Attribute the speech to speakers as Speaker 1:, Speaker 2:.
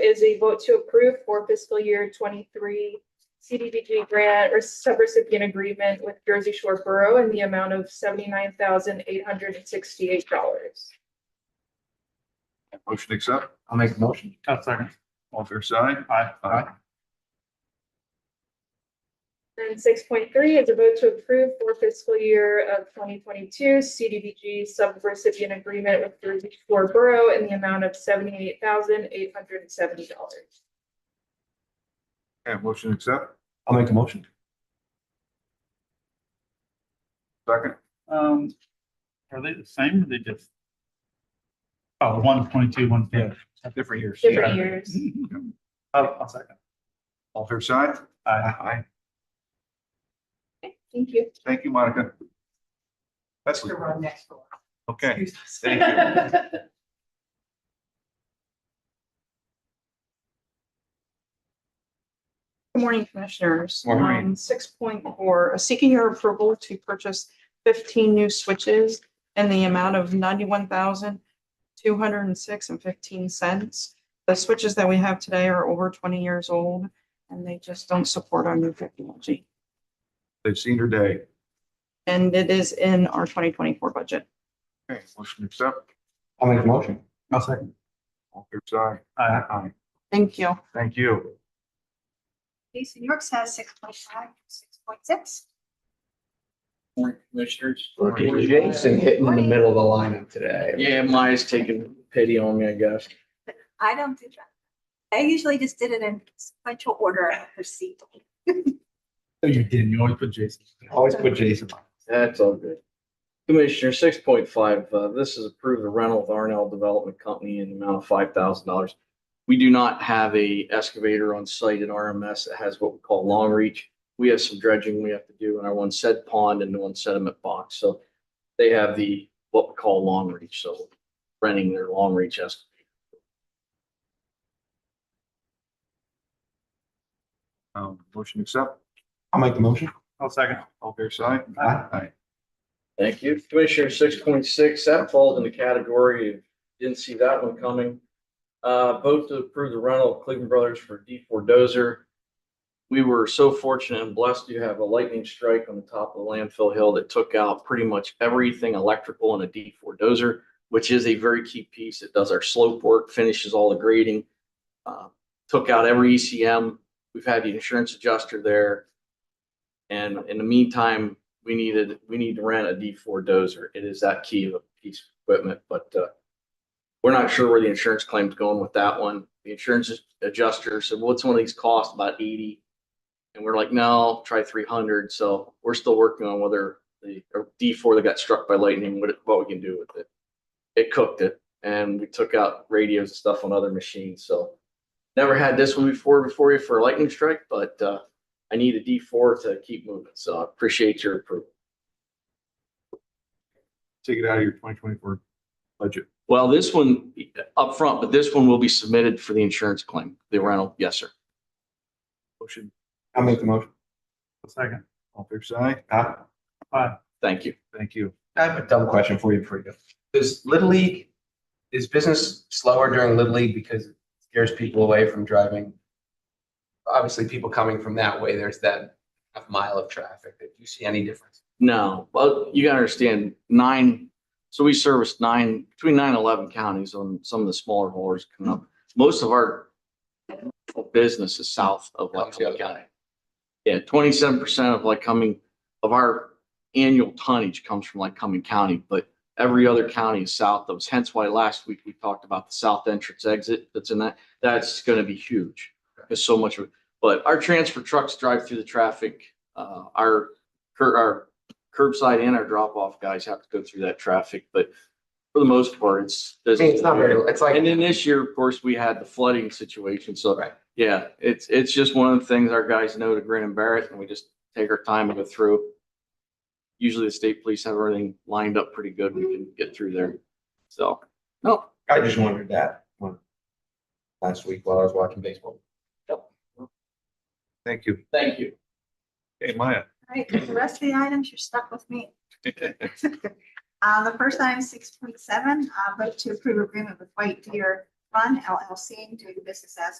Speaker 1: is a vote to approve for fiscal year twenty-three CDBG grant or subrecipient agreement with Jersey Shore Borough in the amount of seventy-nine thousand eight hundred and sixty-eight dollars.
Speaker 2: Motion to accept,
Speaker 3: I'll make the motion.
Speaker 4: I'll second.
Speaker 2: all fair side.
Speaker 4: Oh, Aye.
Speaker 2: Aye.
Speaker 1: And six point three is a vote to approve for fiscal year of twenty twenty-two CDBG subrecipient agreement with Jersey Shore Borough in the amount of seventy-eight thousand eight hundred and seventy dollars.
Speaker 2: And motion to accept,
Speaker 3: I'll make the motion.
Speaker 2: second,
Speaker 4: Um, are they the same or they just? Oh, one twenty-two, one fifty. Oh,
Speaker 3: Different years.
Speaker 1: Different years.
Speaker 4: I'll, I'll second.
Speaker 2: all fair side.
Speaker 4: Aye.
Speaker 2: Aye.
Speaker 1: Okay, Thank you.
Speaker 2: Thank you, Monica. That's
Speaker 5: to run next door.
Speaker 2: okay.
Speaker 5: Excuse us.
Speaker 2: Thank you.
Speaker 5: Good morning, Commissioners. Um,
Speaker 2: Morning.
Speaker 5: Six point four, seeking your approval to purchase fifteen new switches in the amount of ninety-one thousand two hundred and six and fifteen cents. The switches that we have today are over twenty years old and they just don't support our new technology.
Speaker 2: They've seen her day.
Speaker 5: And it is in our twenty twenty-four budget.
Speaker 2: Okay, motion to accept,
Speaker 3: I'll make the motion.
Speaker 4: I'll second.
Speaker 2: all fair side.
Speaker 4: Aye.
Speaker 2: Aye.
Speaker 5: Thank you.
Speaker 2: Thank you.
Speaker 6: Lisa Yorks has six point five, six point six.
Speaker 7: Morning, Commissioners.
Speaker 3: Jason hitting in the middle of the lineup today.
Speaker 7: Yeah, Maya's taking pity on me, I guess.
Speaker 6: I don't do that. I usually just did it in sequential order of receipt.
Speaker 4: No, you didn't. You always put Jason.
Speaker 3: Always put Jason. on.
Speaker 7: That's all good. Commissioner, six point five, uh, this is approved the rental with Arnell Development Company in the amount of five thousand dollars. We do not have a excavator on site at RMS that has what we call long reach. We have some dredging we have to do in our one said pond and one sediment box, so they have the, what we call long reach, so renting their long reach excavator.
Speaker 2: Um, motion to accept,
Speaker 3: I'll make the motion.
Speaker 4: I'll second.
Speaker 2: all fair side.
Speaker 3: Aye.
Speaker 2: Aye.
Speaker 7: Thank you. Commissioner six point six, that falls in the category of, didn't see that one coming. Uh, vote to approve the rental of Cleveland Brothers for D four dozer. We were so fortunate and blessed to have a lightning strike on the top of the landfill hill that took out pretty much everything electrical in a D four dozer, which is a very key piece. It does our slope work, finishes all the grading. uh, Took out every ECM. We've had the insurance adjuster there. And in the meantime, we needed, we need to rent a D four dozer. It is that key of a piece of equipment, but uh. We're not sure where the insurance claim's going with that one. The insurance adjuster said, what's one of these cost? About eighty? And we're like, no, try three hundred. So we're still working on whether the D four that got struck by lightning, what, what we can do with it. It cooked it and we took out radios and stuff on other machines, so. Never had this one before, before you for a lightning strike, but uh, I need a D four to keep moving. So I appreciate your approval.
Speaker 2: Take it out of your twenty twenty-four budget.
Speaker 7: Well, this one up front, but this one will be submitted for the insurance claim, the rental. Yes, sir.
Speaker 2: Motion,
Speaker 3: I'll make the motion.
Speaker 4: I'll second.
Speaker 2: all fair side. Ah,
Speaker 3: Huh?
Speaker 4: Aye.
Speaker 7: Thank you.
Speaker 2: Thank you.
Speaker 3: I have a dumb question for you before you go. Does Little League, is business slower during Little League because it scares people away from driving? Obviously, people coming from that way, there's that half mile of traffic. Do you see any difference?
Speaker 7: No, but you gotta understand nine, so we service nine, between nine and eleven counties on some of the smaller haulers coming up. Most of our business is south of Lycoming County. Yeah, twenty-seven percent of Lycoming, of our annual tonnage comes from Lycoming County, but every other county is south of us. Hence why last week we talked about the south entrance exit that's in that. That's gonna be huge. There's so much of it. But our transfer trucks drive through the traffic. Uh, our, cur- our curbside and our drop-off guys have to go through that traffic, but for the most part, it's.
Speaker 3: I mean, it's not very, it's like.
Speaker 7: And then this year, of course, we had the flooding situation, so,
Speaker 3: Right.
Speaker 7: yeah, it's, it's just one of the things our guys know to grin and bear it, and we just take our time and go through. Usually the state police have everything lined up pretty good, we can get through there, so, no,
Speaker 3: I just wondered that when- last week while I was watching baseball.
Speaker 2: Thank you.
Speaker 7: thank you.
Speaker 2: Hey, Maya.
Speaker 6: All right, with the rest of the items, you're stuck with me. Uh, the first item, six point seven, uh, vote to approve agreement with White Deer Fund LLC doing business as